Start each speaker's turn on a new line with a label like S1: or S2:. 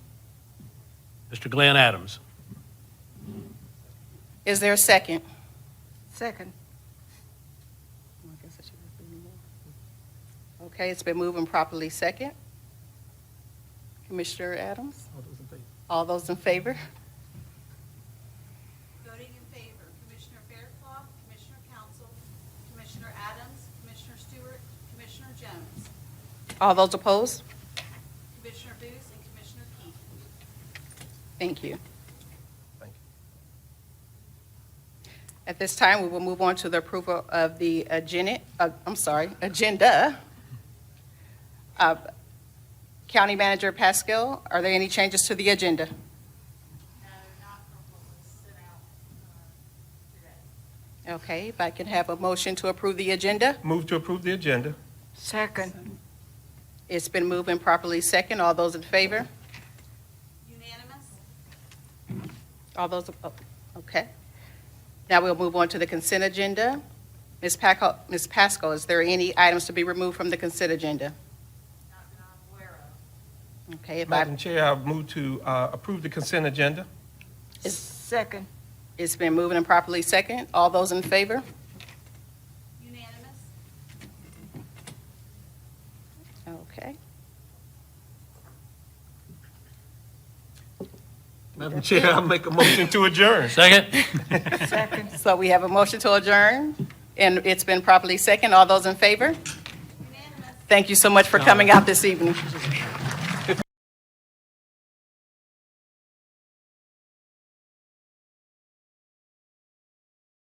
S1: Mr. Glenn Adams.
S2: Is there a second?
S3: Second.
S2: Okay, it's been moved and properly second. Commissioner Adams? All those in favor?
S4: Voting in favor, Commissioner Faircloth, Commissioner Council, Commissioner Adams, Commissioner Stewart, Commissioner Jones,
S2: All those opposed?
S4: Commissioner Booth, and Commissioner Keith.
S2: Thank you.
S5: Thank you.
S2: At this time, we will move on to the approval of the agenda, uh, I'm sorry, agenda. Uh, County Manager Pascal, are there any changes to the agenda?
S4: No, not from what was sent out uh, today.
S2: Okay, if I can have a motion to approve the agenda?
S5: Move to approve the agenda.
S3: Second.
S2: It's been moved and properly second. All those in favor?
S4: Unanimous?
S2: All those, oh, okay. Now we'll move on to the consent agenda. Ms. Paco, Ms. Pascal, is there any items to be removed from the consent agenda?
S4: Not that I'm aware of.
S2: Okay, if I,
S5: Madam Chair, I move to uh, approve the consent agenda.
S3: Second.
S2: it's been moved and properly second. All those in favor?
S4: Unanimous?
S2: Okay.
S5: Madam Chair, I make a motion to adjourn.
S1: Second?
S3: Second.
S2: So we have a motion to adjourn, and it's been properly second. All those in favor?
S4: Unanimous?
S2: Thank you so much for coming out this evening.